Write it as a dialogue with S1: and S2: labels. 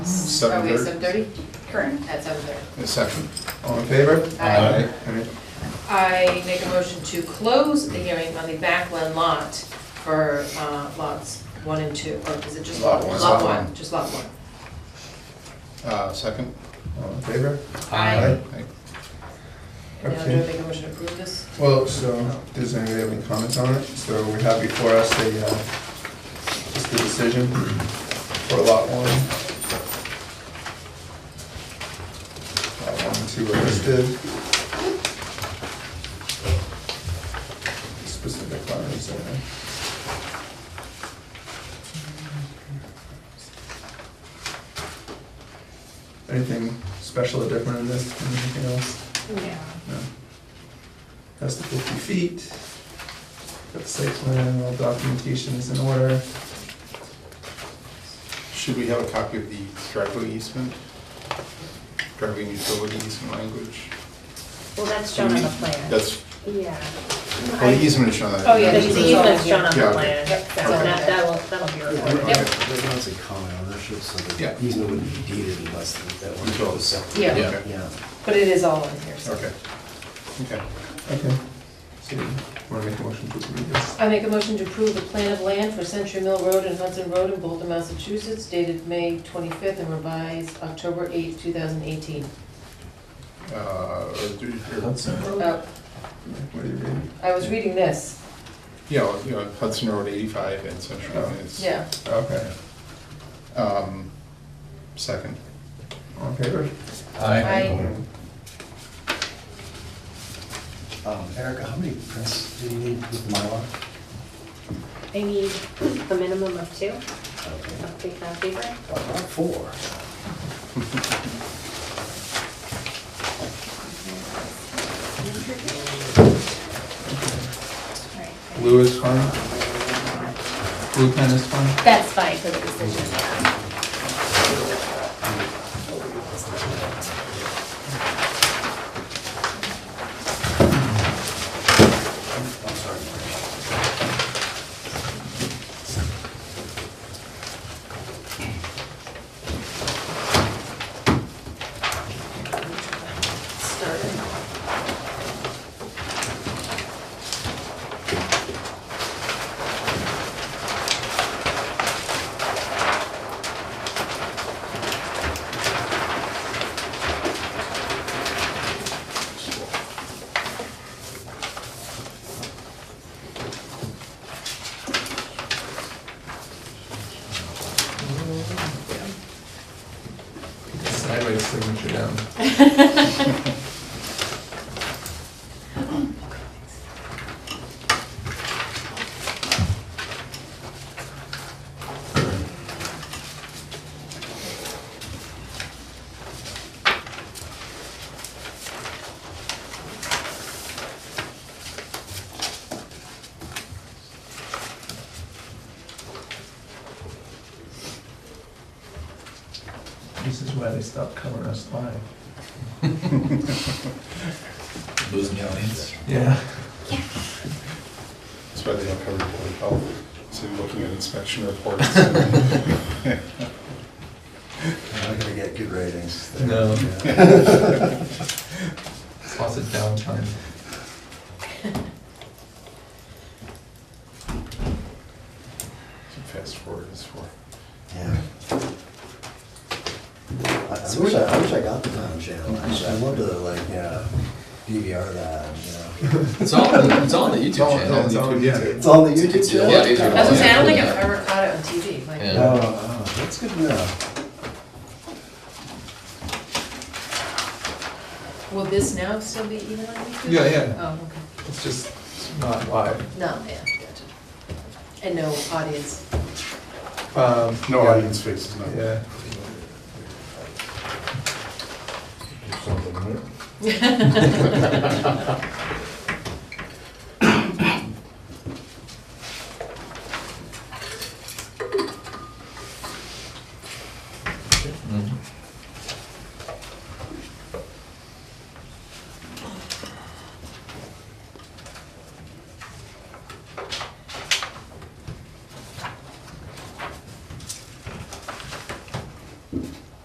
S1: Seven
S2: Are we at
S1: thirty?
S2: seven thirty?
S3: Current.
S2: At seven thirty.
S1: A second. All in favor?
S2: Aye.
S1: Any-
S2: I make a motion to close the hearing on the backland lot for uh, lots one and two, or is it just lot
S1: Lot
S2: one?
S1: one.
S2: Lot
S1: Lot
S2: one,
S1: one.
S2: just lot one.
S1: Uh, second. All in favor?
S2: Aye.
S1: Aye.
S2: Now, do I
S1: Okay.
S2: make a motion to approve this?
S1: Well, so, does anybody have any comments on it? So we have before us the, uh, just the decision for lot one. Lot one and two are listed. Specific lines there. Anything special or different in this, anything else?
S3: Yeah.
S1: No. That's the fifty feet. Got the site plan, all documentation is in order.
S4: Should we have a copy of the driveway easement? Driveway and utility easement language?
S3: Well, that's shown on the plan.
S4: That's,
S3: Yeah.
S4: well, the easement is shown on that.
S2: Oh, yeah,
S3: The
S2: there's
S4: that's-
S2: the
S3: easement's shown on
S4: Yeah,
S3: the
S4: okay.
S3: plan, so
S2: Yep, that's on
S3: that,
S2: there.
S3: that'll, that'll be recorded.
S4: Okay.
S3: Yep.
S5: There's not a common ownership, so
S4: Yeah.
S5: the easement wouldn't be deeded unless that one
S4: Control.
S5: goes up.
S2: Yeah.
S4: Yeah.
S5: Yeah.
S2: But it is all in here, so.
S4: Okay. Okay.
S1: Okay. So, wanna make a motion to approve this?
S2: I make a motion to approve the plan of land for Century Mill Road and Hudson Road in Bolton, Massachusetts, dated May twenty-fifth and revised October eighth, two thousand eighteen.
S4: Uh, or do- or-
S1: What do you read?
S2: Uh, I was reading this,
S4: Yeah, well, you know, Hudson Road 85 and Central Line is.
S2: yeah.
S1: Okay,
S4: Um, Second.
S1: all in favor?
S2: I,
S5: Um, Erica, how many prints do you need with Mylar?
S3: I need a minimum of two,
S5: Okay.
S3: of three pound paper.
S5: Well, Not Uh, four.
S1: Blue is fine, blue pen is fine.
S3: That's fine for the decision, yeah.
S5: I'm sorry. Maria.
S1: Sideways signature down. This is why they stopped covering us live.
S6: Losing the audience.
S1: Yeah.
S4: That's why they don't cover Board of Health. So you're looking at inspection reports. and-
S5: You're not gonna get good ratings. there.
S6: No.
S5: Yeah.
S1: Lots of downtime.
S4: Fast forward is for.
S5: Yeah. I I wish I, I wish I got the time channel, actually. I'd love to like, yeah, DVR that, you know.
S6: It's all, on the- it's all on the
S4: It's all-
S6: YouTube channel.
S4: it's all- yeah.
S5: It's on the YouTube channel?
S6: Yeah, it's-
S2: that's what I'm saying, I don't think I've ever caught it on TV, like.
S6: Yeah.
S5: Oh, oh, that's good to know.
S2: Will this now still be even on YouTube?
S1: Yeah, yeah.
S2: Oh, okay.
S1: It's just not live.
S2: No, yeah, gotcha. And no audience.
S1: Um,
S4: No audience faces, no.
S1: Yeah.
S6: Mhm.